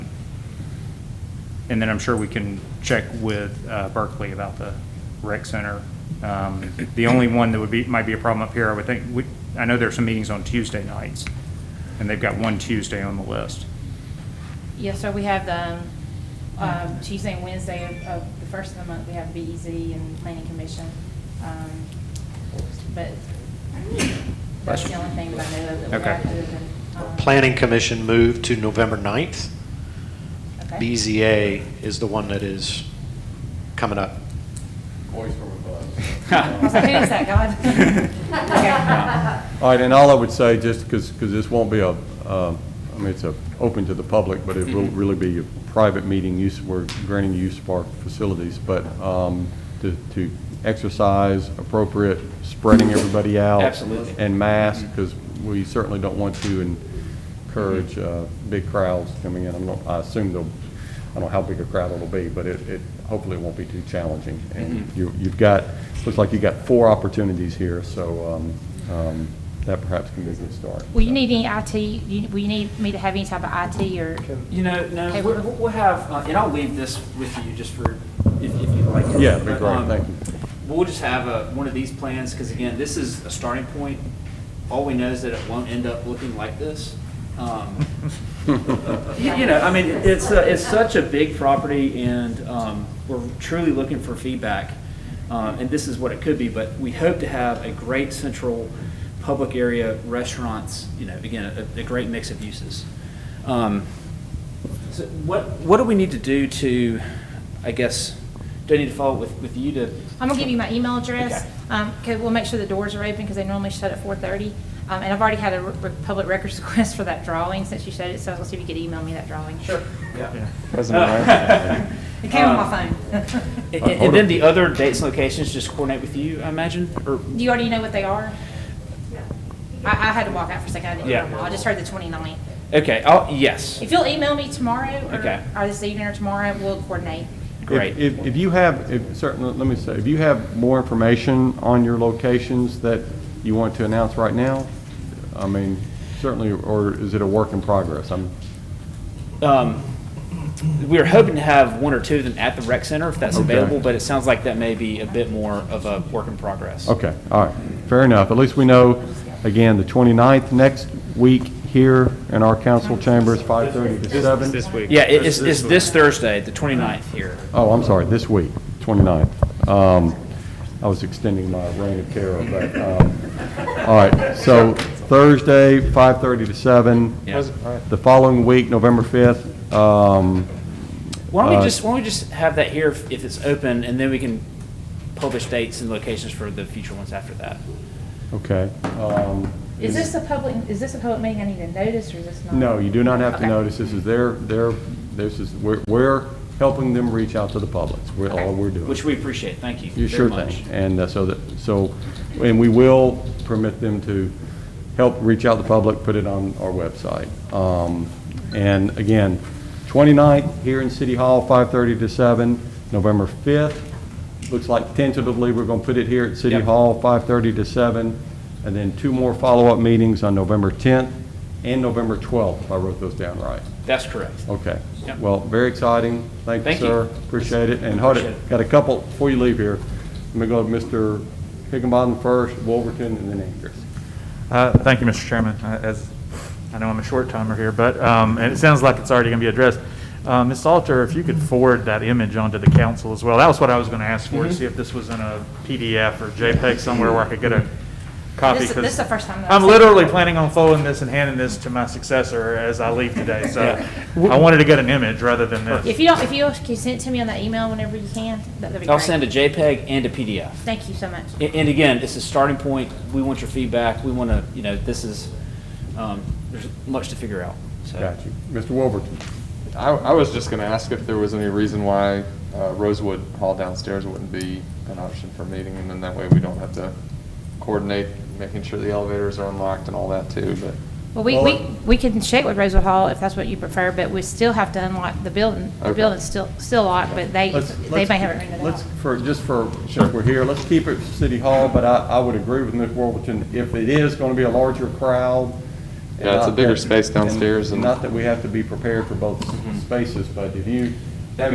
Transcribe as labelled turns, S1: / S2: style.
S1: And then I'm sure we can check with uh, Berkeley about the rec center. Um, The only one that would be, might be a problem up here, I would think, we- I know there are some meetings on Tuesday nights, and they've got one Tuesday on the list.
S2: Yes, sir, we have the um, um, Tuesday and Wednesday of- of the first of the month, we have BEZ and Planning Commission. um, But that's the only thing that I know of that we
S1: Okay.
S2: have. other than, um,
S3: Planning Commission moved to November 9th.
S2: okay.
S3: E BZA is the one that is coming up.
S4: Voice from above.
S2: I was like, who is that, God? Okay.
S4: All right, and all I would say, just because, this won't be a, um, I mean, it's a, open to the public, but it will really be a private meeting use, we're granting use of our facilities, but um, to, to exercise appropriate, spreading everybody out.
S5: Absolutely.
S4: And mask, because we certainly don't want to encourage uh, big crowds coming in. I'm not, I assume they'll, I don't know how big a crowd it'll be, but it, it, hopefully it won't be too challenging. And you, you've got, looks like you've got four opportunities here, so um, um, that perhaps can be a good start.
S2: Will you need any IT, you- will you need me to have any type of IT or?
S5: You know, no,
S2: Okay.
S5: we're- we'll have, uh, and I'll leave this with you just for, if if you'd like. it.
S4: Yeah, that'd be
S5: But,
S4: great.
S5: um,
S4: Thank you.
S5: We'll just have uh, one of these plans, because again, this is a starting point. All we know is that it won't end up looking like this. Um, You you know, I mean, it's, a- it's such a big property and um, we're truly looking for feedback. Uh, And this is what it could be, but we hope to have a great central public area restaurants, you know, again, a, a great mix of uses. Um, So what, what do we need to do to, I guess, do I need to follow up with, with you to?
S2: I'm gonna give you my email address.
S5: Okay.
S2: Um, 'cause we'll make sure the doors are open, because they normally shut at four thirty. Um, and I've already had a re- re- public records request for that drawing, since you said it, so I was gonna see if you could email me that drawing. Sure.
S5: Yeah.
S6: President
S2: It came on my
S5: Um,
S2: phone.
S5: And, and- and then the other dates and locations just coordinate with you, I imagine, or?
S2: Do you already know what they are? I, I had to walk out for a second, I didn't hear
S5: Yeah.
S2: them all. I just heard the 29th.
S5: Okay, oh, yes,
S2: If you'll email me tomorrow,
S5: Okay.
S2: or, or this evening or tomorrow, we'll coordinate.
S5: great.
S4: If, if- if you have, if, certainly, let me say, if you have more information on your locations that you want to announce right now, I mean, certainly, or is it a work in progress? I'm,
S5: Um, we were hoping to have one or two of them at the rec center if that's
S4: Okay.
S5: available, but it sounds like that may be a bit more of a work in progress.
S4: okay, all right, fair enough. At least we know, again, the 29th next week here in our council chambers, 5:30 to 7.
S1: This week.
S5: Yeah, it- it's, it's this Thursday, the 29th here.
S4: Oh, I'm sorry, this week, 29th. Um, I was extending my reign of terror, but, um, all right, so Thursday, 5:30 to 7.
S5: Yeah.
S4: The following week, November 5th, um,
S5: Why don't
S4: Uh,
S5: we just, why don't we just have that here if if it's open, and then we can publish dates and locations for the future ones after that?
S4: okay. um,
S2: Is this a public, is this a public meeting I need to notice, or is this not?
S4: No, you do not have to
S2: Okay.
S4: notice, this is their, their, this is, we're, we're helping them reach out to the public, we're, all we're doing.
S5: Which we appreciate, thank you
S4: You
S5: very
S4: sure
S5: much.
S4: thing. And uh, so that, so, and we will permit them to help reach out to the public, put it on our website. Um, And again, 29th here in City Hall, 5:30 to 7, November 5th. Looks like tentatively, we're going to put it here at City
S5: Yep.
S4: Hall, 5:30 to 7, and then two more follow-up meetings on November 10th and November 12th, if I wrote those down right.
S5: That's correct.
S4: Okay.
S5: Yep.
S4: Well, very exciting. Thank you,
S5: Thank you.
S4: sir. Appreciate it. And hold
S5: Appreciate
S4: it,
S5: it.
S4: got a couple, before you leave here, let me go to Mr. Higginbotham first, Wolverton, and then Andrews.
S6: Uh, Thank you, Mr. Chairman. I- As, I know I'm a short timer here, but, um, and it sounds like it's already going to be addressed. Uh, Ms. Salter, if you could forward that image onto the council as well. That was what I was going to ask for, to see if this was in a PDF or JPEG somewhere where I could get a copy.
S2: This-
S6: 'cause
S2: this is the first time that
S6: I'm
S2: I've seen it.
S6: literally planning on folding this and handing this to my successor as I leave today, so
S5: Yeah.
S6: I wanted to get an image rather than this.
S2: If you don't, if you can send it to me on that email whenever you can, that- that'd be great.
S5: I'll send a JPEG and a PDF.
S2: Thank you so much.
S5: And, and again, this is starting point. We want your feedback. We want to, you know, this is, um, there's much to figure out, so.
S4: Got you. Mr. Wolverton.
S7: I, I was just gonna ask if there was any reason why uh, Rosewood Hall downstairs wouldn't be an option for meeting, and then that way we don't have to coordinate, making sure the elevators are unlocked and all that too, but.
S2: Well, we,
S4: uh,
S2: we, we can check with Rosewood Hall if that's what you prefer, but we still have to unlock the building. The
S7: Okay.
S2: building's still, still locked, but they,
S4: Let's-
S2: they
S4: let's
S2: may
S4: keep-
S2: haven't rented it out.
S4: Let's, for, just for, since we're here, let's keep it City Hall, but I, I would agree with Ms. Wolverton, if it is going to be a larger crowd. uh, and
S7: Yeah, it's a
S4: not
S7: bigger
S4: that-
S7: space downstairs and-
S4: Not that we have to be prepared for both spaces, but if you,